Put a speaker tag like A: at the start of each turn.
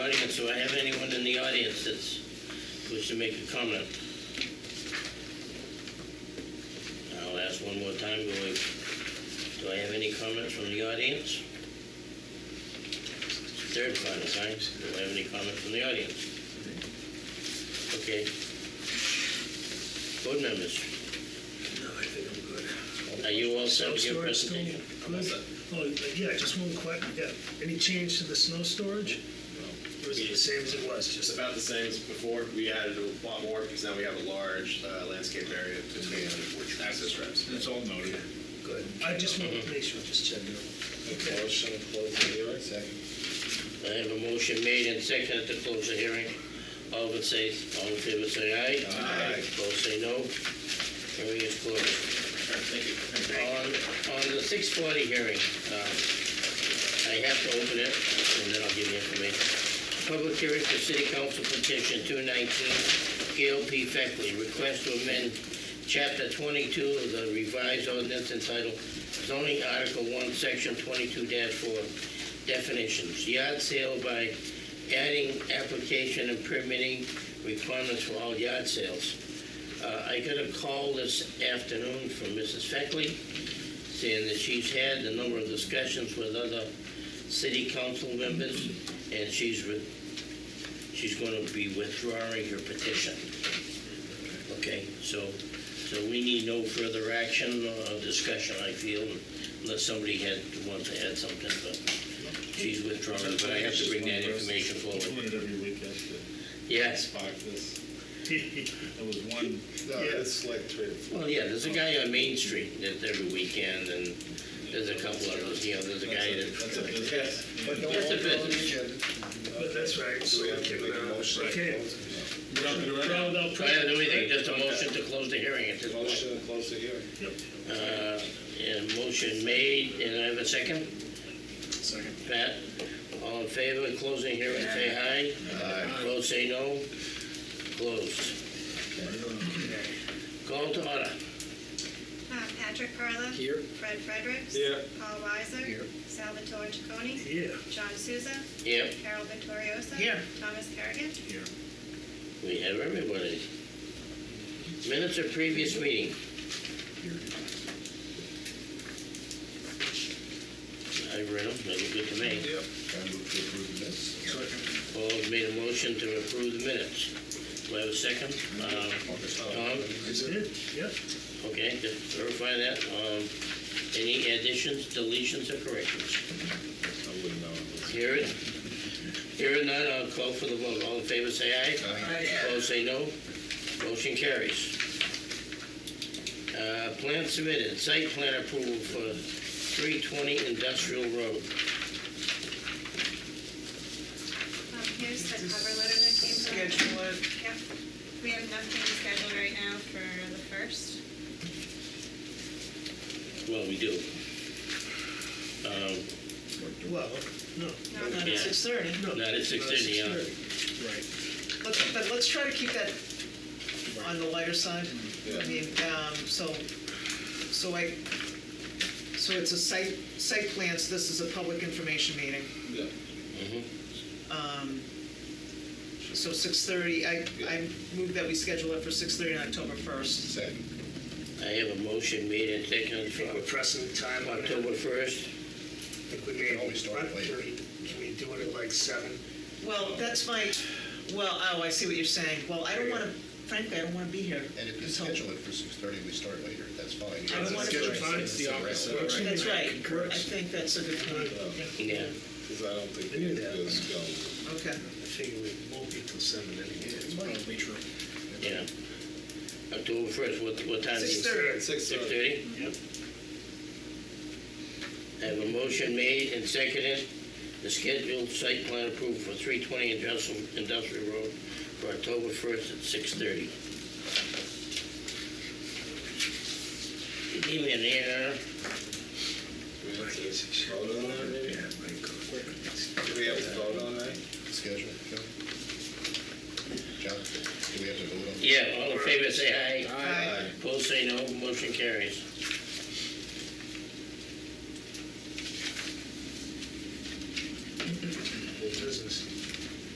A: comments, do I have anyone in the audience that's, wish to make a comment? I'll ask one more time, do I, do I have any comments from the audience? Third final time, do I have any comment from the audience? Okay. Board members,
B: No, I think I'm good.
A: are you all set
C: Snow
A: with your
C: storage still-
A: presentation?
C: Oh, yeah, just one quick, yeah, any change to the snow storage? Or is it the same as it was,
D: It's
C: just
D: about the same as before. We added a lot more because now we have a large uh, landscape area between which access routes.
E: It's all noted.
C: good? I just wanted to make sure, just check it out.
B: Motion to close the hearing? Second.
A: I have a motion made and seconded to close the hearing. All in say, all in favor say aye.
D: Aye.
A: Opposed say no. Hearing is closed.
D: Thank you.
A: On, on the six forty hearing, um, I have to open it, and then I'll give you information. Public hearing for city council petition two nineteen, Gail P. Feckley, request to amend chapter twenty-two of the revised ordinance entitled zoning article one, section twenty-two four, definitions, yard sale by adding application and permitting requirements for all yard sales. Uh, I got a call this afternoon from Mrs. Feckley saying that she's had a number of discussions with other city council members and she's, re- she's going to be withdrawing her petition. Okay, so, so we need no further action or discussion, I feel, unless somebody had, wants to add something, but she's withdrawing, but I have to bring that information forward.
E: Doing it every week, that's the
A: Yes.
E: spark this. There was one,
D: No, it's like three to four.
A: Well, yeah, there's a guy on Main Street that's every weekend, and there's a couple of those, you know, there's a guy
E: that's a
A: that,
E: business.
B: But no
A: Just a
B: longer
A: bit.
B: on the agenda.
C: But that's right,
D: So
C: so
D: we have
C: we
D: to
C: can,
D: make a
C: uh,
D: motion. to
C: okay.
D: close it.
E: You don't have to do
C: No,
E: it?
C: no,
A: I don't do anything, just a motion to close the hearing at this point.
D: Motion to close the hearing.
A: Uh, And motion made, and I have a second? Second. Pat, all in favor of closing hearing, say aye. Aye. Opposed, say no. Closed. Call to order.
F: Uh, Patrick Perla. Here. Fred Fredericks.
D: Here.
F: Paul Weiser. Here. Salvatore Chaconi.
C: Here.
F: John Souza.
A: Yep,
F: Carol Vittorioso.
A: Here.
F: Thomas Kerrigan. Um,
A: we have everybody. Minutes of previous meeting. I read them, they look good to me.
B: I move to approve the minutes.
A: Paul has made a motion to approve the minutes. Do I have a second? Um,
B: Uh,
A: Tom,
B: Is it?
C: Yeah,
A: okay, just verify that. Um, Any additions, deletions, or corrections?
E: I wouldn't know.
A: Hear it? Hear it none, I'll call for the vote. All in favor, say aye. Opposed, say no. Motion carries. Uh, Plan submitted, site plan approval for 320 Industrial Road.
F: Um, Here's the cover letter that came from.
G: schedule it.
F: Yep. We have nothing scheduled right now for the first.
A: Well, we do. Um,
C: well, no.
F: No,
G: Not
A: Yeah.
G: at six thirty.
C: no,
A: Not at 6:30, yeah.
C: 6:30. Right.
G: Let's, but let's try to keep that on the lighter side.
D: Yeah.
G: I mean, um, so, so I, so it's a site, site plans, this is a public information meeting.
D: Yeah.
A: mhm.
G: Um, So six thirty, I, I move that we schedule it for six thirty on October first.
B: Second.
A: I have a motion made and
C: I
A: seconded
C: think we're
A: for
C: pressing the time on it.
A: October 1st.
C: I think we may
B: Always start
C: run
B: later.
C: thirty. Can we do it at like seven?
G: Well, that's my, well, oh, I see what you're saying. Well, I don't want to, frankly, I don't want to be here.
B: And if you
G: until-
B: schedule it for six thirty, we start later, that's fine.
G: I don't wanna-
C: Schedule fine.
B: It's the opposite,
C: Works for me.
G: That's right. I
C: Concurs.
G: think that's a good point.
A: Yeah.
D: Because I don't think
C: I knew that.
D: it's going.
G: Okay.
C: I figure we won't be till seven anyway.
B: Probably true.
A: Yeah. October 1st, what, what time is it?
G: 6:30.
D: Six thirty.
A: 6:30?
C: Yep.
A: I have a motion made and seconded to schedule site plan approval for 320 Industrial, Industrial Road for October 1st at 6:30. Give me an air.
D: Do we have to vote on that maybe? Do we have to vote on that?
B: Schedule, Joe? John, do we have to vote on? this?
A: Yeah, all in favor, say aye.
G: Aye.
A: Opposed, say no. Motion carries.